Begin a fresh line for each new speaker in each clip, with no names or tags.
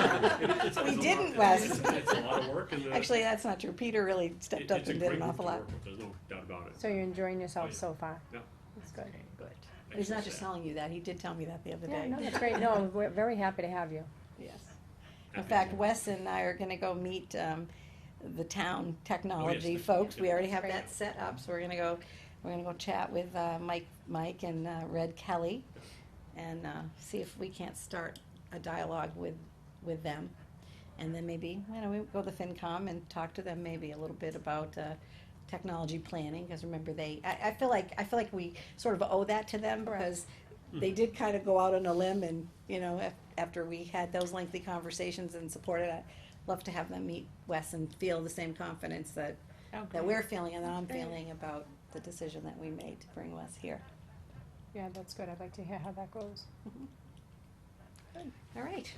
It's- it's-
We
it's a
didn't,
lot-
Wes.
It's it's a lot of work and. uh,
Actually, that's not true. Peter really
it-
stepped up
it's a
and did
great
an
group
awful
to
lot.
work with, There's no doubt about it.
So you're enjoying
Oh,
yourself
yeah.
so far?
Yeah.
That's good.
Good.
Thanks
He's
for
not just
that.
telling you that. He did tell me that the other
Yeah,
day.
no, that's great. No, we're very happy to have you.
Yes. In
Happy
fact,
to-
Wes and I are gonna go meet, um, the town technology
yes,
folks. We
yeah.
already have
Great.
that set up, so we're gonna go, we're gonna go chat with, uh, Mike, Mike and, uh, Red Kelly. And, uh, see if we can't start a dialogue with, with them. And then maybe, you know, we go to FinCom and talk to them maybe a little bit about, uh, technology planning, cause remember they, I, I feel like, I feel like we sort of owe that to them
Correct.
because they did kind of go out on a limb and, you know, af- after we had those lengthy conversations and supported, I'd love to have them meet Wes and feel the same confidence that, that we're feeling and that I'm feeling about the decision that we made to bring Wes here.
Yeah, that's good. I'd like to hear how that goes.
All right,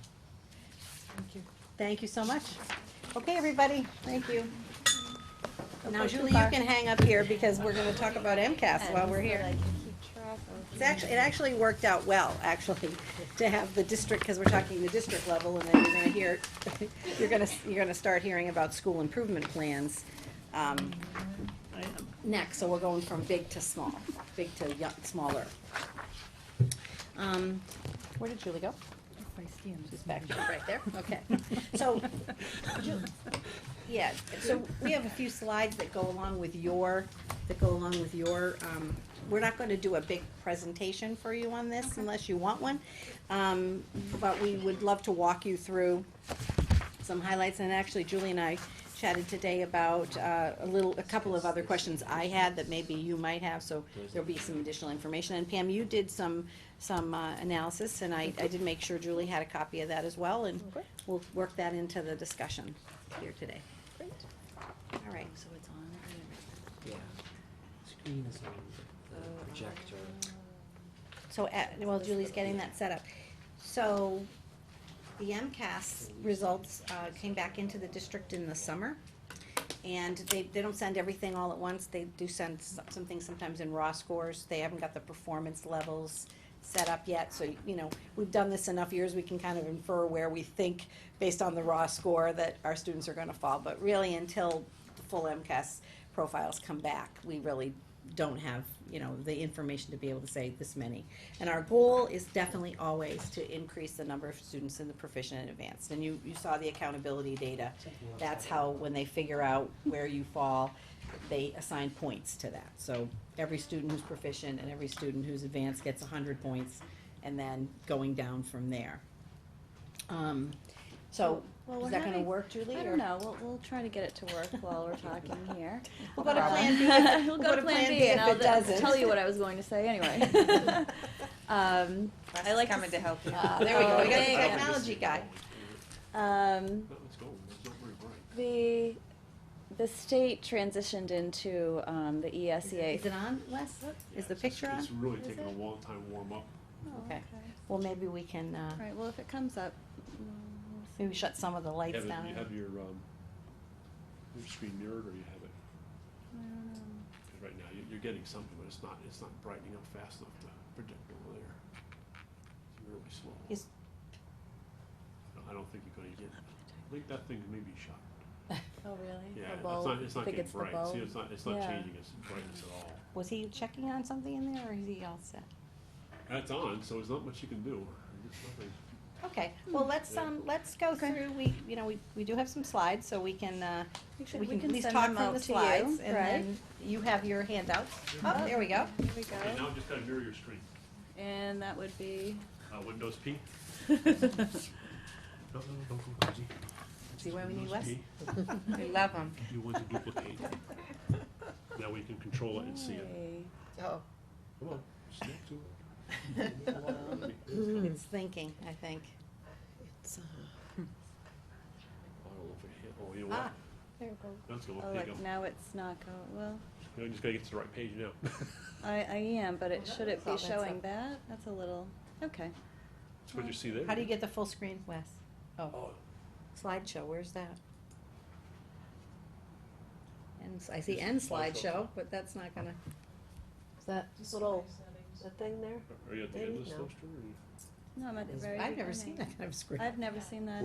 Thank you.
thank you so much. Okay, everybody, thank you. Now
go too
Julie, you
far.
can hang up here because we're gonna talk about MCAS while we're here. It's actually, it actually worked out well, actually, to have the district, because we're talking the district level, and then you're gonna hear, you're gonna, you're gonna start hearing about school improvement plans, um, next, so we're going from big to small, big to yo- smaller. Um, where did Julie go? She's back, she's right there, okay. So, Ju- yeah, so we have a few slides that go along with your, that go along with your, um, we're not gonna do a big presentation for you on this unless you want one. Um, but we would love to walk you through some highlights, and actually Julie and I chatted today about, uh, a little, a couple of other questions I had that maybe you might have, so there'll be some additional information. And Pam, you did some, some, uh, analysis, and I, I did make sure Julie had a copy of that as well, and
Okay.
we'll work that into the discussion here today. All right, so it's on.
Yeah. Screen is on the projector.
So, at- well, Julie's getting that set up. So, the MCAS results uh, came back into the district in the summer. And they, they don't send everything all at once, they do send s- some things sometimes in raw scores, they haven't got the performance levels set up yet, so, you know, we've done this enough years, we can kind of infer where we think, based on the raw score, that our students are gonna fall, but really, until the full MCAS profiles come back, we really don't have, you know, the information to be able to say this many. And our goal is definitely always to increase the number of students in the proficient and advanced, and you, you saw the accountability data that's how, when they figure out where you fall, they assign points to that. So every student who's proficient and every student who's advanced gets hundred points, and then going down from there. Um, so,
Well,
is
we're
that gonna
having-
work, Julie?
I
or-
don't know, we'll, we'll try to get it to work while we're talking here.
We'll go to Plan B.
Um,
if-
We'll go to Plan B and
if
I'll
it doesn't.
tell you what I was going to say anyway. Um,
Russ
I
is
like to
coming to help you.
uh,
There we go, we got
Oh,
the
yeah.
technology guy.
um,
But let's go, let's not worry, Brian.
the, the state transitioned into, um, the ESEA.
Is it on, Wes?
Yeah,
Is the
it's-
picture on?
It's really
Is
taken a
it?
long time to warm up.
Oh,
Okay. Well, maybe we can, uh,
All right, well, if it comes up. mm,
maybe shut some of the
You
lights
have it- you
down.
have your, um, your screen mirrored or you have it,
I don't know.
'cause right now, you- you're getting something, but it's not, it's not brightening up fast enough to predict over there. It's really slow.
Is-
No, I don't think you're gonna get, I think that thing may be shot.
Oh, really?
Yeah,
The
it's
bulb?
not, it's
I
not
think
getting
it's the
bright, see,
bulb.
it's not, it's not
Yeah.
changing its brightness at all.
Was he checking on something in there, or is he all set?
That's on, so there's not much you can do, There's nothing.
Okay,
Hmm.
well, let's, um, let's go through, we, you know, we, we do have some slides, so we can, uh,
should-
we can
we
at
can
least
send
talk
them
from
out
the
to you,
slides, and
right?
then you have your handouts. Oh, there we go.
There we
Okay,
go.
now just gotta mirror your screen,
And that would be.
uh, Windows P. No, no, no, don't go crazy.
See why we need
Windows
Wes?
P.
We love them.
You want to duplicate. Now we can control it and see it.
Hey.
Oh.
Come on, snap to it. I don't know
It's thinking, I think. uh,
if it hit- Oh, you know what?
Ah,
There it goes.
That's going,
Oh,
there you
look,
go.
now it's not going, well,
You just gotta get to the right page now.
I, I am, but it, should it be
all that's
showing
up.
that? That's a little, okay.
That's what you see there.
how do you get the full screen, Wes? Oh,
Oh,
slideshow, where's that? And, s- I see end slideshow, but that's not gonna, is that little,
The thing there?
are you at the end of the
Maybe, no.
stuff, Drew, or you-
No, I'm at the very
I've never
beginning.
seen that kind of screen.
I've never seen that.